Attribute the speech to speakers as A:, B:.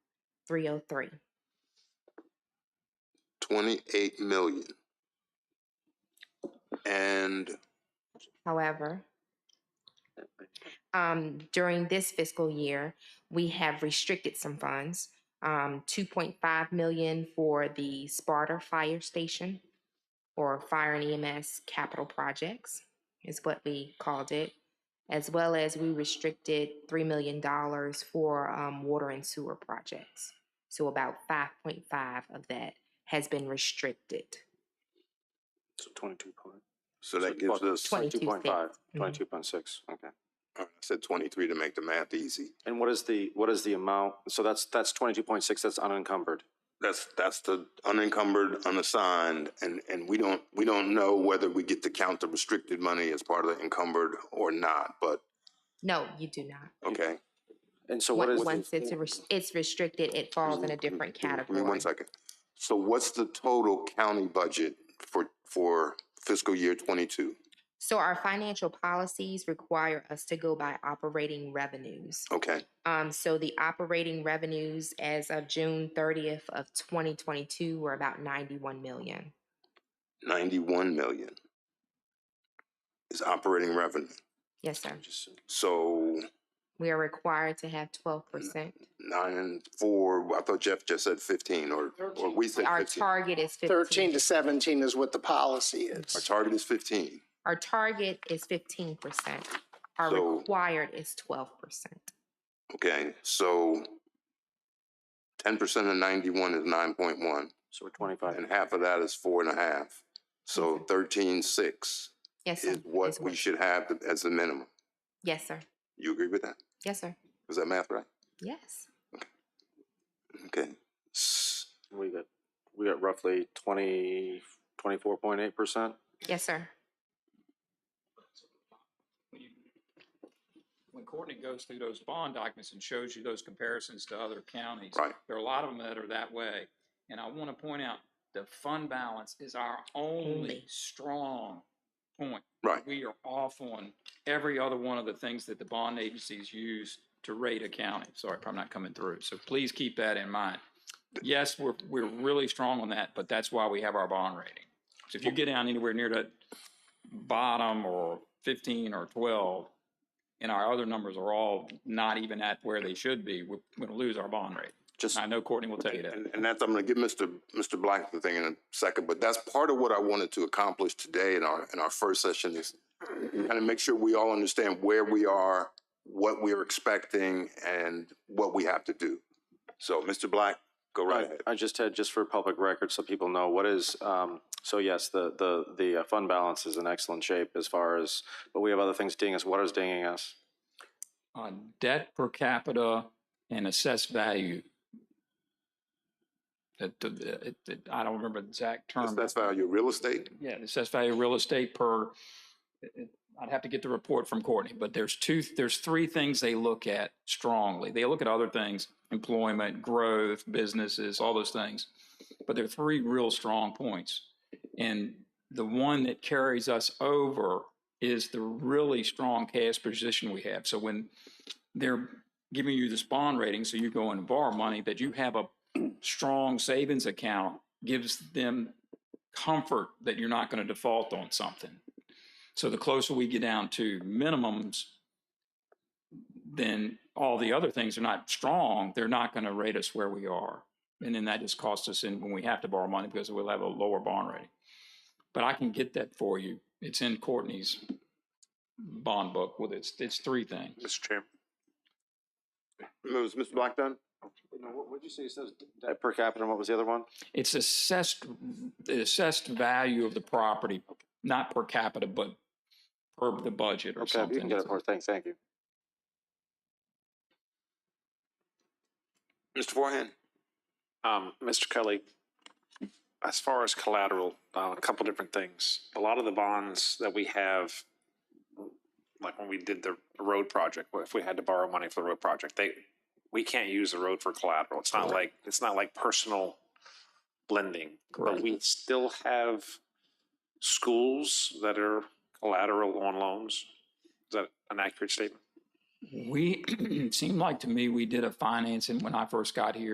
A: 303.
B: 28 million. And
A: However, um, during this fiscal year, we have restricted some funds. Um, 2.5 million for the Sparta Fire Station or Fire and EMS Capital Projects is what we called it, as well as we restricted $3 million for um, water and sewer projects. So about 5.5 of that has been restricted.
C: So twenty-two point,
B: so that
C: So
B: gives
C: what-
B: us,
A: Twenty-
B: all
C: twenty-two point Mm-hmm. five,
A: Mhm.
C: twenty-two point six, okay.
B: right, I said 23 to make the math easy.
C: And what is the, what is the amount, so that's, that's twenty-two point six, that's unencumbered?
B: That's, that's the unencumbered, unassigned, and, and we don't, we don't know whether we get to count the restricted money as part of the encumbered or not, but,
A: No, you do not.
B: okay.
C: And so what
A: Once-
C: is,
A: Once it's, res- it's restricted, it falls in a different
B: Give me
A: category.
B: one second. So what's the total county budget for, for fiscal year twenty-two?
A: So our financial policies require us to go by operating revenues.
B: Okay,
A: Um, so the operating revenues as of June thirtieth of twenty twenty-two were about ninety-one million.
B: ninety-one million is operating revenue.
A: Yes, sir.
B: So
A: We are required to have twelve percent.
B: nine and four, I thought Jeff just said fifteen, or, or we said
A: Our
B: fifteen.
A: target is
D: Thirteen
A: fifteen.
D: to seventeen is what the policy
B: Our
D: is.
B: target is fifteen.
A: Our target is fifteen percent. Our
B: So-
A: required is twelve percent.
B: Okay, so ten percent of ninety-one is nine point one,
C: so we're twenty-five,
B: and half of that is four and a half. So thirteen-six
A: Yes, sir.
B: is what
A: is
B: we should have th- as the minimum.
A: Yes, sir.
B: You agree with that?
A: Yes, sir.
B: Was that math right?
A: Yes.
B: Okay. S-
C: we got, we got roughly twenty, twenty-four point eight percent?
A: Yes, sir.
E: when you, when Courtney goes through those bond documents and shows you those comparisons to other counties,
B: Right.
E: there are a lot of them that are that way. And I want to point out, the fund balance is our only
A: Only.
E: strong point.
B: Right.
E: We are off on every other one of the things that the bond agencies use to rate a county. Sorry if I'm not coming through. So please keep that in mind. Yes, we're, we're really strong on that, but that's why we have our bond rating. So if you get down anywhere near that bottom or 15 or 12, and our other numbers are all not even at where they should be, we're going to lose our bond rate.
C: Just,
E: I know Courtney will tell you that.
B: And, and that's, I'm gonna give Mr. Mr. Black the thing in a second, but that's part of what I wanted to accomplish today in our, in our first session is kind of make sure we all understand where we are, what we're expecting, and what we have to do. So, Mr. Black, go right ahead.
C: I just had, just for public record, so people know, what is, um, so yes, the, the, the uh, fund balance is in excellent shape as far as, but we have other things dinging us, what is dinging us?
E: on debt per capita and assessed value. That, the- the- it- it- I don't remember the exact term.
B: That's value of real estate.
E: Yeah, the assessed value of real estate per, it- it- I'd have to get the report from Courtney, but there's two, there's three things they look at strongly. They look at other things, employment, growth, businesses, all those things. But there are three real strong points. And the one that carries us over is the really strong cash position we have. So when they're giving you this bond rating, so you go and borrow money, that you have a strong savings account gives them comfort that you're not going to default on something. So the closer we get down to minimums, then all the other things are not strong. They're not going to rate us where we are. And then that just costs us in when we have to borrow money because we'll have a lower bond rating. But I can get that for you. It's in Courtney's bond book with its it's three things.
C: Mr. Chairman.
B: Was Mr. Black done?
C: What, what'd you say, it says? Uh, Per capita, and what was the other one?
E: It's assessed the assessed value of the property, not per capita, but per the budget or
C: Okay,
E: something.
C: you can get it for, us. thanks, thank you.
B: Mr. Forehand?
F: Um, Mr. Kelly, as far as collateral, uh, a couple different things. A lot of the bonds that we have, like when we did the road project, if we had to borrow money for the road project, they, we can't use the road for collateral. It's not like, it's not like personal lending. But
E: Correct.
F: we still have schools that are collateral on loans. Is that an accurate statement?
E: We, it seemed like to me, we did a financing when I first got here.